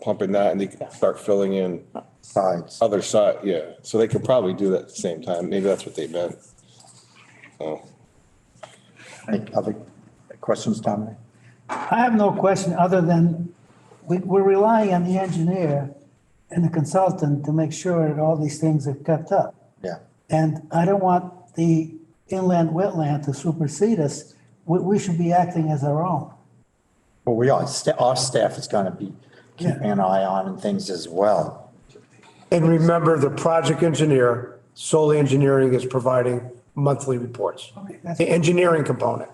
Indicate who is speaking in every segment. Speaker 1: pumping that and they can start filling in
Speaker 2: sides.
Speaker 1: other side, yeah. So they could probably do that at the same time. Maybe that's what they meant. So,
Speaker 2: Any other questions, Dominic?
Speaker 3: I have no question other than we, we're relying on the engineer and the consultant to make sure that all these things are kept up.
Speaker 2: Yeah,
Speaker 3: And I don't want the inland wetland to supersede us. We, we should be acting as our own.
Speaker 2: well, we are, sta- our staff is gonna be keeping an eye on and things as well.
Speaker 4: And remember, the project engineer, Solar Engineering is providing monthly reports.
Speaker 3: that's-
Speaker 4: The engineering component.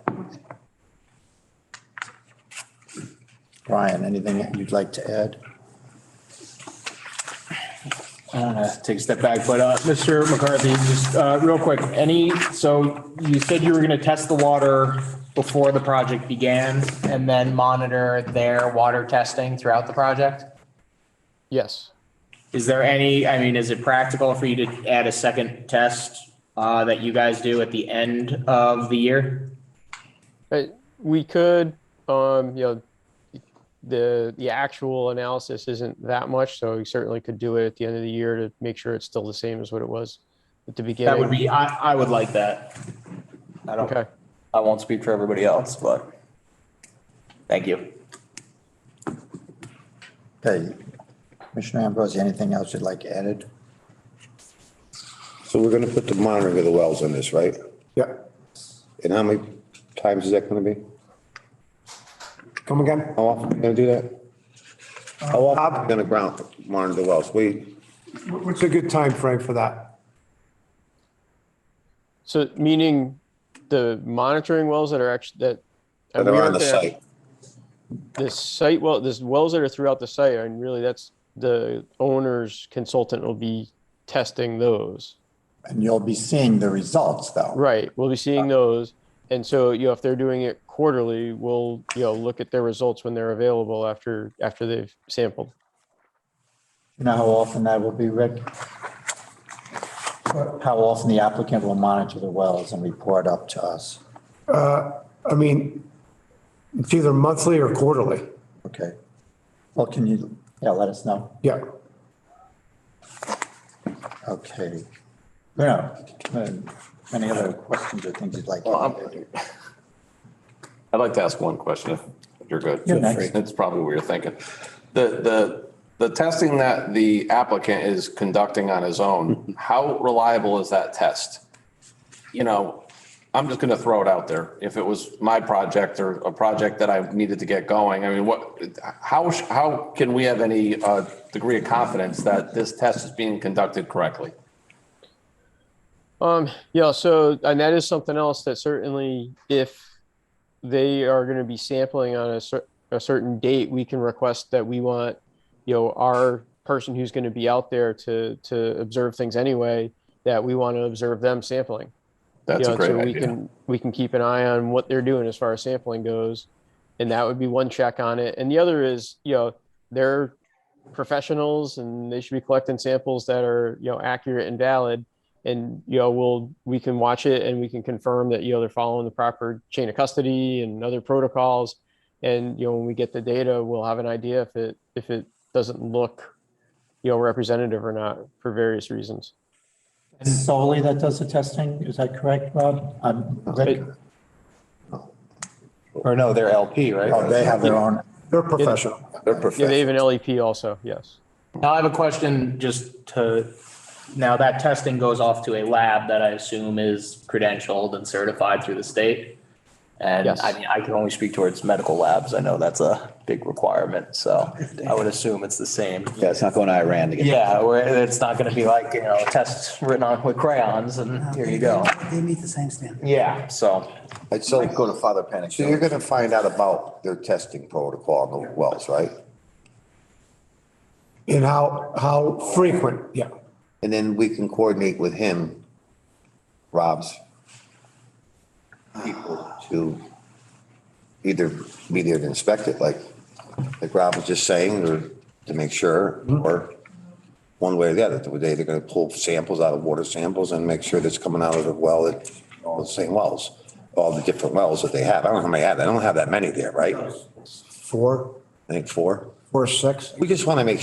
Speaker 2: Brian, anything that you'd like to add?
Speaker 5: uh, take a step back, but uh, Mr. McCarthy, just uh, real quick, any, so you said you were going to test the water before the project began and then monitor their water testing throughout the project?
Speaker 6: Yes.
Speaker 5: Is there any, I mean, is it practical for you to add a second test uh, that you guys do at the end of the year?
Speaker 6: Uh, we could, um, you know, the, the actual analysis isn't that much, so we certainly could do it at the end of the year to make sure it's still the same as what it was at the beginning.
Speaker 5: That would be, I, I would like that. I don't,
Speaker 6: Okay.
Speaker 5: I won't speak for everybody else, but thank you.
Speaker 2: Okay, Commissioner Ambrosi, anything else you'd like added?
Speaker 7: So we're gonna put the monitoring of the wells on this, right?
Speaker 4: Yeah.
Speaker 7: And how many times is that gonna be?
Speaker 4: Come again?
Speaker 7: How often are we gonna do that? How often are we gonna ground, monitor the wells? We,
Speaker 4: What's a good time frame for that?
Speaker 6: So meaning the monitoring wells that are actually, that. and
Speaker 7: that
Speaker 6: we
Speaker 7: are on
Speaker 6: aren't
Speaker 7: the
Speaker 6: gonna-
Speaker 7: site.
Speaker 6: The site well, there's wells that are throughout the site, and really that's the owner's consultant will be testing those.
Speaker 2: And you'll be seeing the results though.
Speaker 6: Right, we'll be seeing those. And so, you know, if they're doing it quarterly, we'll, you know, look at their results when they're available after, after they've sampled.
Speaker 2: You know how often that will be, Rick? How often the applicant will monitor the wells and report up to us?
Speaker 4: I mean, it's either monthly or quarterly.
Speaker 2: Okay. Well, can you, yeah, let us know.
Speaker 4: Yeah.
Speaker 2: Okay. Yeah, um, any other questions or things you'd like? to add?
Speaker 8: I'd like to ask one question if you're good.
Speaker 2: You're next.
Speaker 8: It's probably what you're thinking. The, the, the testing that the applicant is conducting on his own, how reliable is that test? You know, I'm just going to throw it out there. If it was my project or a project that I needed to get going, I mean, what, how, sh- how can we have any uh, degree of confidence that this test is being conducted correctly?
Speaker 6: Um, yeah, so, and that is something else that certainly if they are going to be sampling on a cer- a certain date, we can request that we want, you know, our person who's going to be out there to, to observe things anyway, that we want to observe them sampling.
Speaker 8: That's
Speaker 6: Yeah,
Speaker 8: a great
Speaker 6: so we
Speaker 8: idea.
Speaker 6: can We can keep an eye on what they're doing as far as sampling goes. And that would be one check on it. And the other is, you know, they're professionals and they should be collecting samples that are, you know, accurate and valid. And, you know, we'll, we can watch it and we can confirm that, you know, they're following the proper chain of custody and other protocols. And, you know, when we get the data, we'll have an idea if it, if it doesn't look, you know, representative or not for various reasons.
Speaker 2: Solely that does the testing, is that correct, Rob? Um, Rick?
Speaker 5: Or no, they're LP, right?
Speaker 2: Oh, they have their own,
Speaker 4: They're professional.
Speaker 6: Yeah,
Speaker 7: They're
Speaker 6: they
Speaker 7: professional.
Speaker 6: have an LEP E also, yes.
Speaker 5: Now I have a question just to, now that testing goes off to a lab that I assume is credentialed and certified through the state. And
Speaker 6: Yes.
Speaker 5: I mean, I can only speak towards medical labs. I know that's a big requirement, so I would assume it's the same.
Speaker 9: Yeah, it's not going to Iran to get.
Speaker 5: Yeah, where it's not gonna be like, you know, a test written on with crayons and here you go.
Speaker 3: They meet the same standard.
Speaker 5: Yeah, so
Speaker 7: I'd still go to Father Panic. So you're gonna find out about their testing protocol on the wells, right?
Speaker 4: And how, how frequent? Yeah.
Speaker 7: And then we can coordinate with him, Rob's people to either be there to inspect it, like, like Rob was just saying, or to make sure, or one way or the other, the day they're gonna pull samples out of water samples and make sure that's coming out of the well, at all the same wells, all the different wells that they have. I don't know how many I have. I don't have that many there, right?
Speaker 4: Four?
Speaker 7: I think four.
Speaker 4: Or six?
Speaker 7: We just want to make